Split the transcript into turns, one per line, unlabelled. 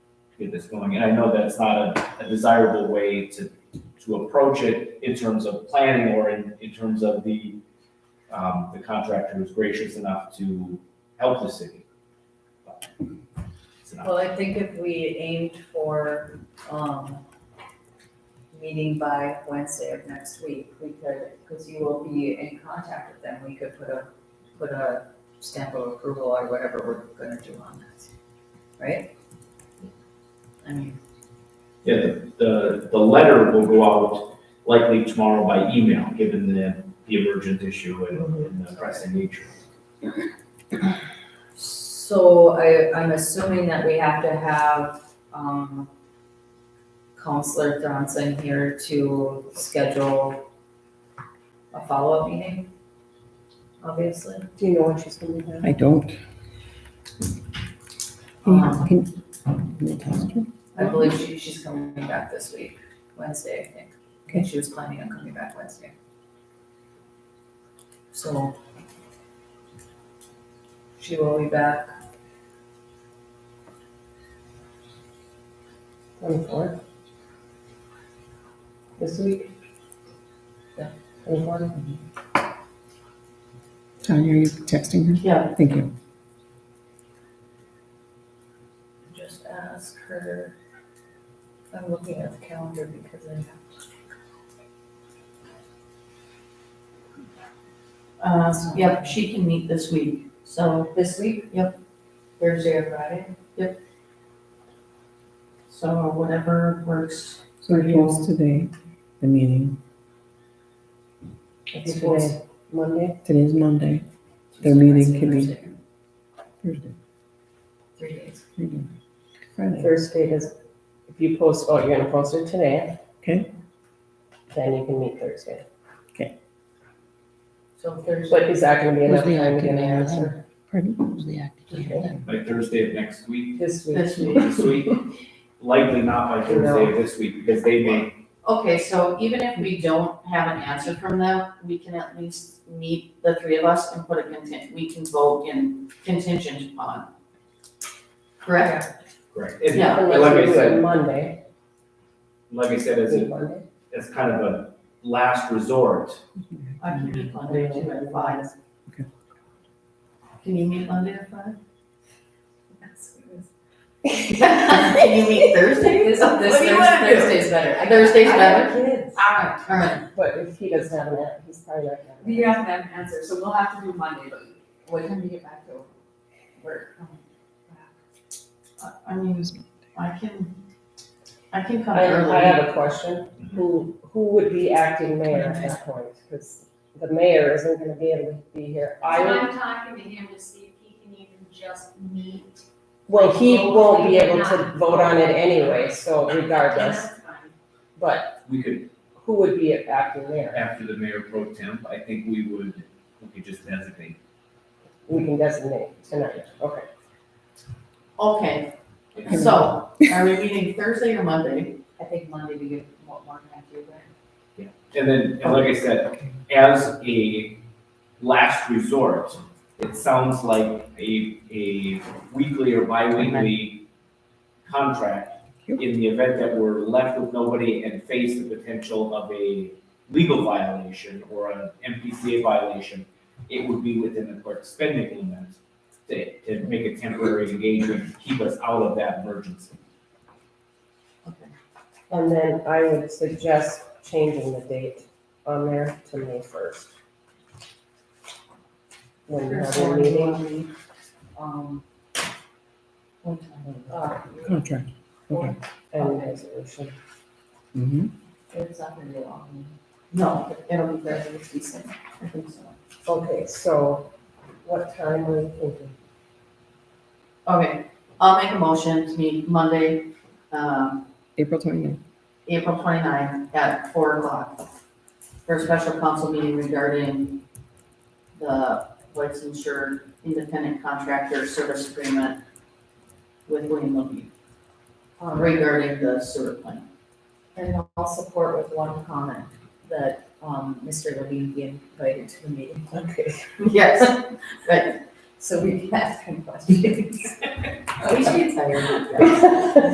get this going. And I know that's not a, a desirable way to, to approach it in terms of planning or in, in terms of the, um, the contractor who's gracious enough to help the city. But it's not-
Well, I think if we aimed for, um, meeting by Wednesday of next week, we could, because you will be in contact with them, we could put a, put a stamp of approval or whatever we're gonna do on this, right? I mean,
Yeah, the- the, the letter will go out likely tomorrow by email, given the, the emergent issue and-
Mm-hmm.
and the pressing nature.
so I, I'm assuming that we have to have, um, Counselor Johnson here to schedule a follow-up meeting, obviously.
Do you know when she's gonna be back?
I don't.
Um,
Can- can you text her?
I believe she, she's coming back this week, Wednesday, I think. Okay, she was planning on coming back Wednesday. So. She will be back,
Twenty-fourth? This week?
Yeah.
Twenty-fourth?
Tanya, are you texting her?
Yeah.
Thank you.
just ask her. I'm looking at the calendar because I
Uh, yep, she can meet this week, so,
This week?
Yep.
Thursday or Friday?
so whatever works.
So it goes today, the meeting.
It's today, Monday?
Today's Monday, Their
Tuesday, Wednesday,
meeting can be-
Thursday,
Thursday,
Three days.
Friday, Friday.
Thursday is, if you post, oh, you're gonna post it today?
Okay.
Then you can meet Thursday.
So Thursday,
But is that gonna be enough
Thursday
time
I
to get
can
an
air
answer?
then. Pardon? Who's the active leader then?
By Thursday of next week,
This week?
This week.
this week, likely not by Thursday of this week, because they may,
Okay, so even if we don't have an answer from them, we can at least meet, the three of us, and put a contingent, we can vote in contingent upon. Correct?
correct. And
Yeah.
and like
Unless
I
you do it
said,
Monday,
like I said, as
meet
a,
Monday,
as kind of a last resort,
I can meet Monday too at five.
Okay.
Can you meet Monday at five?
yes, it is.
Can you meet Thursday?
This, this
What do you
Thursday,
wanna do?
Thursday's better. I-
Thursday's
I have kids.
Alright, alright,
but if he doesn't have an answer, he's probably not gonna.
You have to have an answer, so we'll have to do Monday, but what time do you get back to work?
I- I mean, I can, I can come
I,
early.
I have a question. Who, who would be acting mayor at that point? Because the mayor isn't gonna be able to be here. I
So
would,
I'm talking to him to see if he can even just meet.
well, he won't be able to vote on it anyway, so regardless.
That's fine.
But
we could,
who would be acting mayor?
after the mayor pro temp, I think we would, we could just designate.
We can designate tonight, okay.
Okay, so, are we meeting Thursday or Monday?
I think Monday we get more, more than you, but.
And then, and like I said, as a last resort, it sounds like a, a weekly or bi-weekly contract in the event that we're left with nobody and face the potential of a legal violation or an MPCA violation, it would be within the court's spending limit to, to make a temporary engagement, keep us out of that emergency.
And then I would suggest changing the date on there to May first. When you have your meeting,
Um,
What time?
uh,
Contract. Okay.
and resolution.
Mm-hmm.
it's not gonna be a long. meeting.
um, No, it'll be Thursday, it's decent, I think so.
Okay, so what time were you thinking?
Okay, I'll make a motion to meet Monday, um,
April twenty-ninth.
April 29th at four o'clock for a special council meeting regarding the White's Insured Independent Contractor Service Agreement with William Levy uh,
Um,
regarding the sewer plant.
And I'll support with one comment, that, um, Mr. Levine be invited to the meeting,
Okay.
Yes,
so we can ask him questions.
we should get tired of that.